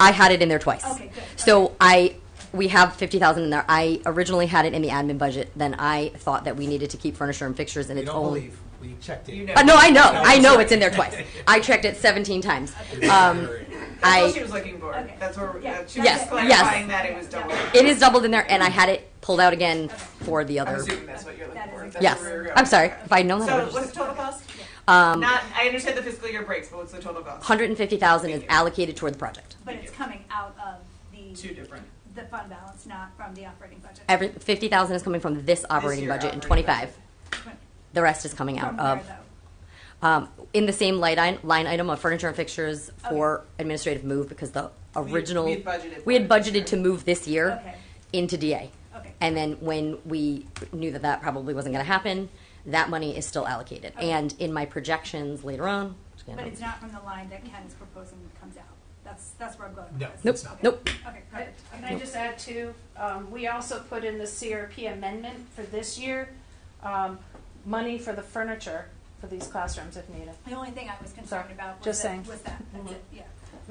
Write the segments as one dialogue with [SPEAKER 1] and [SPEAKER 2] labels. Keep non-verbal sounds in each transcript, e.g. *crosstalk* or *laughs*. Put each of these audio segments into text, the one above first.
[SPEAKER 1] I had it in there twice.
[SPEAKER 2] Okay, good.
[SPEAKER 1] So I, we have fifty thousand in there. I originally had it in the admin budget, then I thought that we needed to keep furniture and fixtures in
[SPEAKER 3] You
[SPEAKER 1] its
[SPEAKER 3] don't
[SPEAKER 1] own.
[SPEAKER 3] believe, we checked it.
[SPEAKER 2] You know.
[SPEAKER 1] Uh, no, I know, I know
[SPEAKER 3] sorry.
[SPEAKER 1] it's in
[SPEAKER 3] *laughs*
[SPEAKER 1] there
[SPEAKER 4] *laughs*
[SPEAKER 1] twice. I checked it seventeen times.
[SPEAKER 3] It's
[SPEAKER 1] Um,
[SPEAKER 3] very-
[SPEAKER 4] That's all
[SPEAKER 1] I-
[SPEAKER 4] she was looking for.
[SPEAKER 2] Okay.
[SPEAKER 4] That's where
[SPEAKER 2] Yeah.
[SPEAKER 4] that she was
[SPEAKER 1] Yes,
[SPEAKER 4] just
[SPEAKER 1] yes.
[SPEAKER 4] clarifying that it was
[SPEAKER 2] Yeah.
[SPEAKER 4] double.
[SPEAKER 1] It is doubled in there, and I had it pulled out again for the
[SPEAKER 4] I'm
[SPEAKER 1] other.
[SPEAKER 4] assuming that's what you're looking
[SPEAKER 2] That
[SPEAKER 4] for.
[SPEAKER 2] is-
[SPEAKER 4] That's
[SPEAKER 1] Yes,
[SPEAKER 4] where we were going.
[SPEAKER 1] I'm sorry. If I'd known that, I
[SPEAKER 4] So
[SPEAKER 1] would've
[SPEAKER 4] what's
[SPEAKER 1] just-
[SPEAKER 4] the total cost?
[SPEAKER 1] um,
[SPEAKER 4] Not. I understand the fiscal year breaks, but what's the total cost?
[SPEAKER 1] hundred and fifty thousand is
[SPEAKER 4] Thank you.
[SPEAKER 1] allocated toward the project.
[SPEAKER 2] But it's coming out of the,
[SPEAKER 4] Two different.
[SPEAKER 2] the fund balance, not from the operating budget.
[SPEAKER 1] Every fifty thousand is coming from this operating
[SPEAKER 4] year
[SPEAKER 1] budget in
[SPEAKER 4] operating
[SPEAKER 1] twenty-five. The rest is coming out
[SPEAKER 2] From
[SPEAKER 1] of
[SPEAKER 2] where though?
[SPEAKER 1] Um, in the same line, i- line item of furniture and fixtures for administrative move because the original,
[SPEAKER 4] we had budgeted
[SPEAKER 1] we had
[SPEAKER 4] for it.
[SPEAKER 1] budgeted to move this year
[SPEAKER 2] Okay.
[SPEAKER 1] into DA.
[SPEAKER 2] Okay.
[SPEAKER 1] And then when we knew that that probably wasn't gonna happen, that money is still allocated.
[SPEAKER 2] Okay.
[SPEAKER 1] And in my projections later on, you know,
[SPEAKER 2] But it's not from the line that Ken is proposing comes out. That's, that's where I'm going with
[SPEAKER 3] No,
[SPEAKER 2] this.
[SPEAKER 1] nope,
[SPEAKER 3] it's not.
[SPEAKER 1] nope,
[SPEAKER 2] Okay,
[SPEAKER 5] Uh, Can
[SPEAKER 2] perfect.
[SPEAKER 5] I just add too, um, we also put in the CRP amendment for this year, um, money for the furniture for these classrooms if needed.
[SPEAKER 2] The only thing I was concerned
[SPEAKER 5] Sorry,
[SPEAKER 2] about was
[SPEAKER 5] just
[SPEAKER 2] that,
[SPEAKER 5] saying.
[SPEAKER 2] was that, that's
[SPEAKER 5] Mhm.
[SPEAKER 2] it, yeah.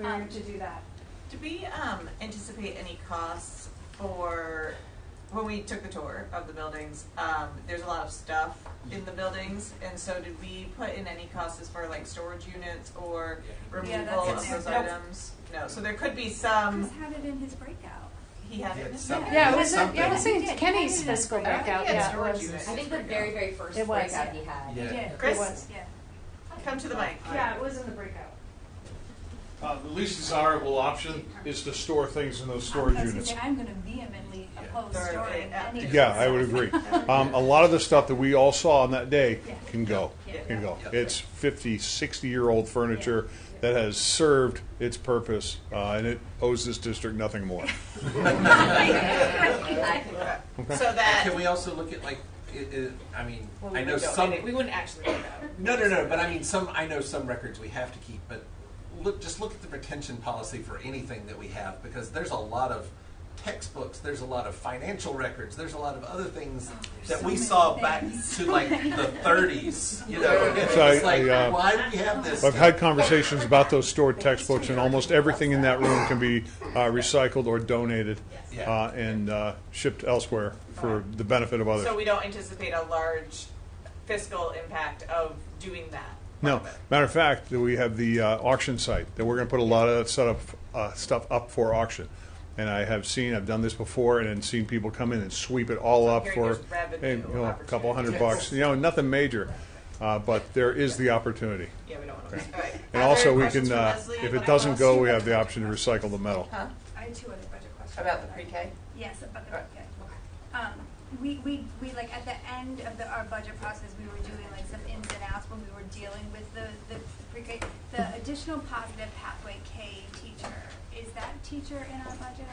[SPEAKER 2] Um,
[SPEAKER 5] We were to do that.
[SPEAKER 4] Did we um, anticipate any costs for when we took the tour of the buildings? Um, there's a lot of stuff in the buildings, and so did we put in any costs as far like storage units or removal
[SPEAKER 2] Yeah, that's in
[SPEAKER 4] of
[SPEAKER 2] there.
[SPEAKER 4] those
[SPEAKER 5] Nope.
[SPEAKER 4] items? No. So there could be
[SPEAKER 2] Chris
[SPEAKER 4] some.
[SPEAKER 2] had it in his breakout.
[SPEAKER 4] He had it.
[SPEAKER 3] Some-
[SPEAKER 5] Yeah, it was, in- yeah, it was
[SPEAKER 2] Something.
[SPEAKER 5] in Kenny's fiscal
[SPEAKER 4] I don't think
[SPEAKER 5] breakout,
[SPEAKER 4] he had
[SPEAKER 5] yeah. it
[SPEAKER 4] storage
[SPEAKER 5] was.
[SPEAKER 4] units.
[SPEAKER 5] It
[SPEAKER 4] I think the very,
[SPEAKER 1] very first
[SPEAKER 5] It was. breakout
[SPEAKER 1] he had.
[SPEAKER 2] He
[SPEAKER 3] Yeah.
[SPEAKER 2] did.
[SPEAKER 4] Chris?
[SPEAKER 5] was.
[SPEAKER 2] Yeah.
[SPEAKER 4] Come to the mic.
[SPEAKER 5] Yeah, it was in the breakout.
[SPEAKER 6] Uh, The least desirable option is to store things in those storage
[SPEAKER 2] I was gonna
[SPEAKER 6] units.
[SPEAKER 2] say, I'm gonna vehemently oppose
[SPEAKER 4] Sorry,
[SPEAKER 2] storing
[SPEAKER 4] yeah.
[SPEAKER 2] any. of
[SPEAKER 6] Yeah,
[SPEAKER 2] this
[SPEAKER 6] I would
[SPEAKER 2] stuff. *laughs*
[SPEAKER 6] agree. Um, A lot of the stuff that we all saw on that day can go,
[SPEAKER 2] Yeah.
[SPEAKER 6] can go. It's 50, 60-year-old furniture that has served its purpose, uh, and it owes this district
[SPEAKER 2] *laughs*
[SPEAKER 6] nothing more.
[SPEAKER 4] So that
[SPEAKER 3] Can we also look at like, it, it, I mean,
[SPEAKER 4] Well,
[SPEAKER 3] I
[SPEAKER 4] we
[SPEAKER 3] know
[SPEAKER 4] don't
[SPEAKER 3] some,
[SPEAKER 4] edit. We wouldn't actually do that.
[SPEAKER 3] no, no, no, but I mean, some, I know some records we have to keep, but look, just look at the retention policy for anything that we have, because there's a lot of textbooks, there's a lot of financial records, there's a lot of other things
[SPEAKER 4] Oh,
[SPEAKER 3] that we saw back to like the thirties, you
[SPEAKER 4] *laughs*
[SPEAKER 3] know? and
[SPEAKER 6] So I-
[SPEAKER 3] It's like,
[SPEAKER 6] I, uh,
[SPEAKER 3] why do we have this?
[SPEAKER 6] I've had conversations about
[SPEAKER 2] *laughs*
[SPEAKER 6] those stored textbooks, and almost everything in that room can be uh, recycled or donated
[SPEAKER 3] Yeah.
[SPEAKER 6] uh, and uh, shipped elsewhere for the benefit of others.
[SPEAKER 4] So we don't anticipate a large fiscal impact of doing that.
[SPEAKER 6] No, matter of fact, that we have the uh, auction site that we're going to put a lot of that set up, uh, stuff up for auction. And I have seen, I've done this before, and then seen people come in and sweep it all up
[SPEAKER 4] Here,
[SPEAKER 6] for
[SPEAKER 4] there's revenue
[SPEAKER 6] and, you know, a couple hundred
[SPEAKER 4] opportunities.
[SPEAKER 6] bucks. You know, nothing major, uh, but there is the opportunity.
[SPEAKER 4] Yeah, we don't want to. All right. Other
[SPEAKER 6] And also, we
[SPEAKER 4] questions
[SPEAKER 6] can,
[SPEAKER 4] for
[SPEAKER 6] uh,
[SPEAKER 4] Leslie
[SPEAKER 6] if
[SPEAKER 4] about
[SPEAKER 6] it doesn't
[SPEAKER 4] costs?
[SPEAKER 6] go, we have the option to recycle the metal.
[SPEAKER 4] Huh?
[SPEAKER 2] I had two other budget questions.
[SPEAKER 4] About the pre-K?
[SPEAKER 2] Yes, about the
[SPEAKER 4] Right.
[SPEAKER 2] pre-K. Um, we, we, we, like, at the end of the, our budget process, we were doing like some ins and outs when we were dealing with the, the pre-K. The additional positive pathway K teacher, is that teacher in our budget?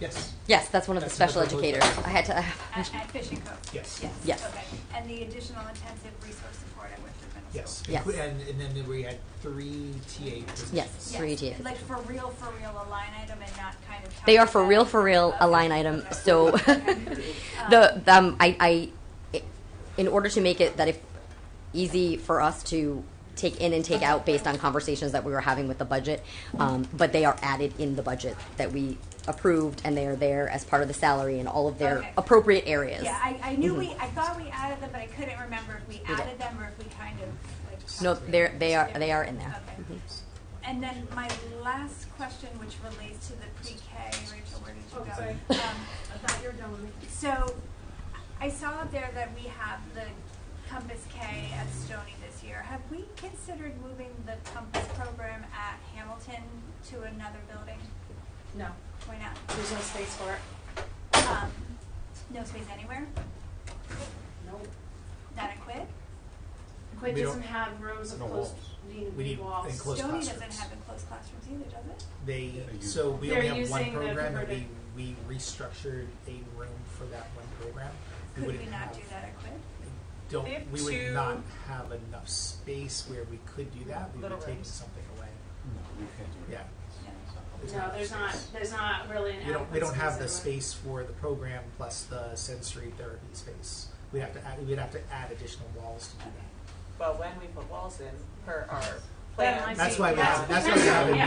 [SPEAKER 3] Yes,
[SPEAKER 1] Yes, that's one of the
[SPEAKER 3] That's in the
[SPEAKER 1] special
[SPEAKER 3] proposal.
[SPEAKER 1] educators. I had to,
[SPEAKER 2] At, at Fishing Cove?
[SPEAKER 7] Yes.
[SPEAKER 2] Yes.
[SPEAKER 1] Yes.
[SPEAKER 2] Okay, and the additional intensive resource support at Winthrop Middle School?
[SPEAKER 1] Yes.
[SPEAKER 7] Yes. And, and then we had three TA positions.
[SPEAKER 1] Yes.
[SPEAKER 2] Yes,
[SPEAKER 1] Three TAs.
[SPEAKER 2] Like for real, for real, a line item and not kind of.
[SPEAKER 1] They are for
[SPEAKER 2] talking
[SPEAKER 1] real,
[SPEAKER 2] about-
[SPEAKER 1] for real, a
[SPEAKER 2] Okay,
[SPEAKER 1] line item.
[SPEAKER 2] okay.
[SPEAKER 1] So *laughs* the um, I, I, in order to make it that if easy for us to take in and take out based on conversations that we were having with the budget, um, but they are added in the budget that we approved and they are there as part of the salary and all of their
[SPEAKER 2] Okay.
[SPEAKER 1] appropriate areas.
[SPEAKER 2] Yeah, I, I knew
[SPEAKER 1] Mm-hmm.
[SPEAKER 2] we, I thought we added them, but I couldn't remember if we added them or if we kind of like.
[SPEAKER 1] No, they're, they are they are in there. Mm-hmm.
[SPEAKER 2] Okay. And then my last question, which relates to the pre-K, Rachel, where did you go? Um,
[SPEAKER 5] I thought you were done with me.
[SPEAKER 2] So I saw up there that we have the Compass K at Stony this year. Have we considered moving the Compass program at Hamilton to another building?
[SPEAKER 5] No,
[SPEAKER 2] Why not?
[SPEAKER 5] there's no space for it.
[SPEAKER 2] Um, no space anywhere?
[SPEAKER 5] Nope.
[SPEAKER 2] Not a quid?
[SPEAKER 5] Quinn
[SPEAKER 7] We
[SPEAKER 5] doesn't have rooms of
[SPEAKER 6] No
[SPEAKER 5] closed,
[SPEAKER 6] walls.
[SPEAKER 5] need,
[SPEAKER 7] We
[SPEAKER 5] need
[SPEAKER 7] need
[SPEAKER 5] walls.
[SPEAKER 7] enclosed- Closed
[SPEAKER 2] Stony doesn't
[SPEAKER 7] classrooms.
[SPEAKER 2] have enclosed classrooms either, does it?
[SPEAKER 7] They,
[SPEAKER 6] They use-
[SPEAKER 7] so we
[SPEAKER 5] They're
[SPEAKER 7] only have one
[SPEAKER 5] using the
[SPEAKER 7] program and we,
[SPEAKER 5] converted-
[SPEAKER 7] we restructured a room for that one program. We
[SPEAKER 2] Could
[SPEAKER 7] wouldn't
[SPEAKER 2] we not
[SPEAKER 7] have-
[SPEAKER 2] do that at quid?
[SPEAKER 4] They have
[SPEAKER 7] Don't, we
[SPEAKER 4] two-
[SPEAKER 7] would not have enough space where we could do that. We would
[SPEAKER 4] Little
[SPEAKER 7] have taken
[SPEAKER 4] rooms.
[SPEAKER 7] something away. Yeah. It's
[SPEAKER 5] No,
[SPEAKER 7] not
[SPEAKER 5] there's
[SPEAKER 7] space.
[SPEAKER 5] not, there's not really an
[SPEAKER 7] We don't, we
[SPEAKER 5] adequate
[SPEAKER 7] don't have the
[SPEAKER 5] space anywhere.
[SPEAKER 7] space for the program plus the sensory therapy space. We'd have to add, we'd have to add additional walls to do that.
[SPEAKER 4] But when we put walls in, per our
[SPEAKER 5] That
[SPEAKER 4] plans.
[SPEAKER 5] might
[SPEAKER 7] That's
[SPEAKER 5] See,
[SPEAKER 7] why we
[SPEAKER 5] that's
[SPEAKER 7] have, that's why we have a
[SPEAKER 5] potential, yeah.